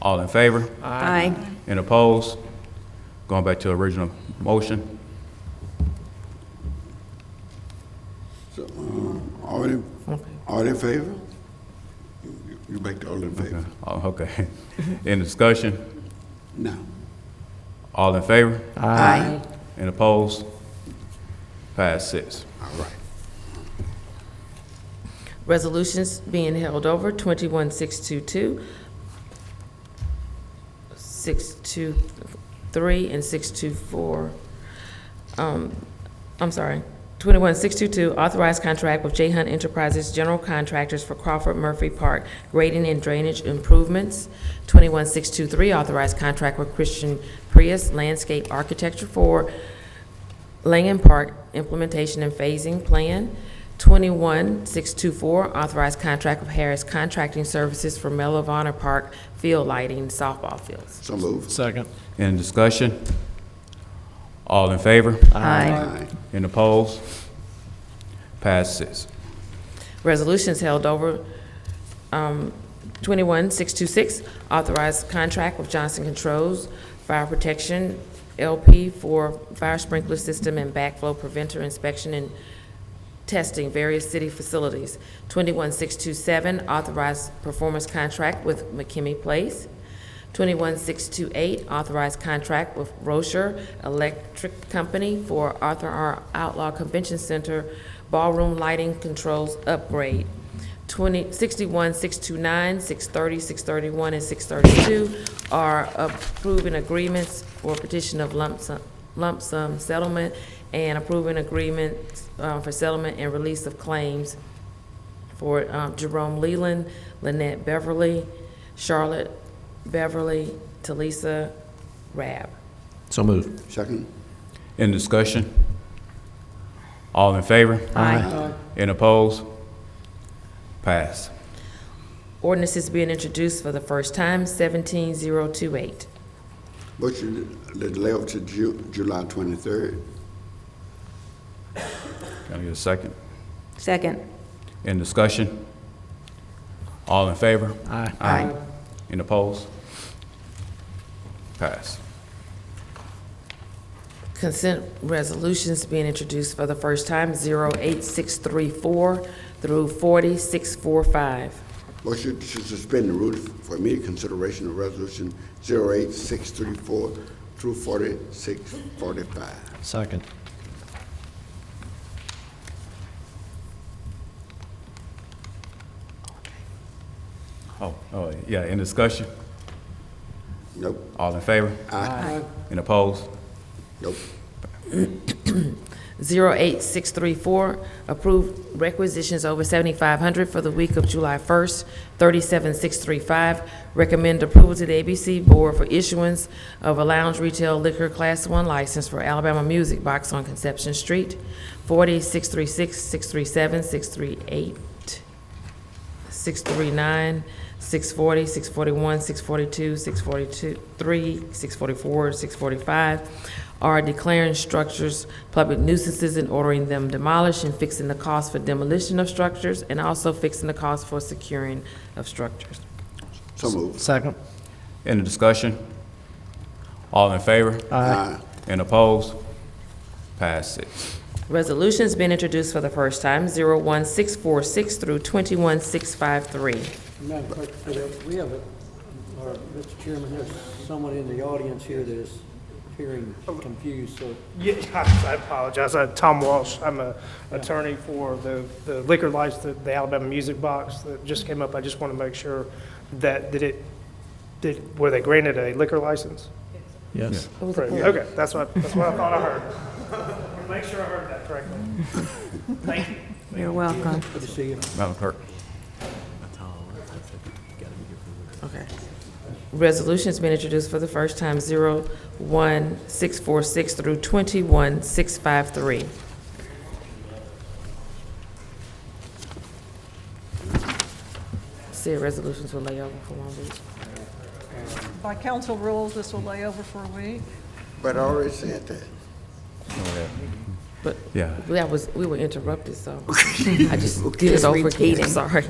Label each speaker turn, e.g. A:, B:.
A: All in favor?
B: Aye.
A: And opposed? Going back to original motion.
C: So, um, all in, all in favor? You- You make the all in favor?
A: Oh, okay. In discussion?
C: No.
A: All in favor?
B: Aye.
A: And opposed? Pass six.
C: All right.
D: Resolutions being held over, 21622, 623, and 624. Um, I'm sorry, 21622, authorized contract with J Hunt Enterprises General Contractors for Crawford Murphy Park grading and drainage improvements. 21623, authorized contract with Christian Prius Landscape Architecture for Langham Park Implementation and Phasing Plan. 21624, authorized contract with Harris Contracting Services for Medal of Honor Park field lighting softball fields.
C: So move.
E: Second.
A: In discussion? All in favor?
B: Aye.
C: Aye.
A: And opposed? Pass six.
D: Resolutions held over, um, 21626, authorized contract with Johnson Controls Fire Protection LP for fire sprinkler system and backflow preventer inspection and testing various city facilities. 21627, authorized performance contract with McKimmy Place. 21628, authorized contract with Rocher Electric Company for Arthur R. Outlaw Convention Center ballroom lighting controls upgrade. 20, 61, 629, 630, 631, and 632 are approving agreements for petition of lump sum, lump sum settlement and approving agreements uh, for settlement and release of claims for um, Jerome Leland, Lynette Beverly, Charlotte Beverly, Talisa Rab.
E: So moved.
C: Second?
A: In discussion? All in favor?
C: Aye.
A: And opposed? Pass.
D: Ordinance is being introduced for the first time, 17028.
C: Motion to delay up to Ju- July twenty-third.
A: Can I get a second?
B: Second.
A: In discussion? All in favor?
E: Aye.
B: Aye.
A: And opposed? Pass.
D: Consent resolutions being introduced for the first time, 08634 through 40645.
C: Motion to suspend the rules for immediate consideration of resolution zero eight six three four through forty-six forty-five.
E: Second.
A: Oh, oh, yeah, in discussion?
C: Nope,
A: All in favor?
C: Aye.
A: And opposed?
C: nope,
D: 08634, approve requisitions over 7,500 for the week of July 1st, 37635. Recommend approval to the ABC Board for issuance of a lounge retail liquor Class 1 license for Alabama Music Box on Conception Street, 40636, 637, 638. 639, 640, 641, 642, 643, 644, 645 are declaring structures public nuisances and ordering them demolished and fixing the cost for demolition of structures and also fixing the cost for securing of structures.
C: so move.
E: Second.
A: In the discussion? All in favor?
C: Aye.
A: And opposed? Pass six.
D: Resolution's been introduced for the first time, 01646 through 21653.
F: Madam Clerk, we have, a- or, Mr. Chairman, there's someone in the audience here that is appearing confused, so
G: Yeah, I I apologize. Uh, Tom Walsh, I'm a attorney for the the liquor license, the Alabama Music Box that just came up. I just want to make sure that, did it, did, were they granted a liquor license?
E: Yes.
G: Okay, that's what, that's what I thought I heard. Make sure I heard that correctly. Thank you.
B: You're welcome.
F: good to see you.
A: Madam Clerk?
D: Okay. Resolution's been introduced for the first time, 01646 through 21653. See, resolutions will lay over for one week.
H: By council rules, this will lay over for a week.
C: But I already said that.
D: But
A: Yeah.
D: that was, we were interrupted, so I just did it over again,
B: repeating.
D: sorry.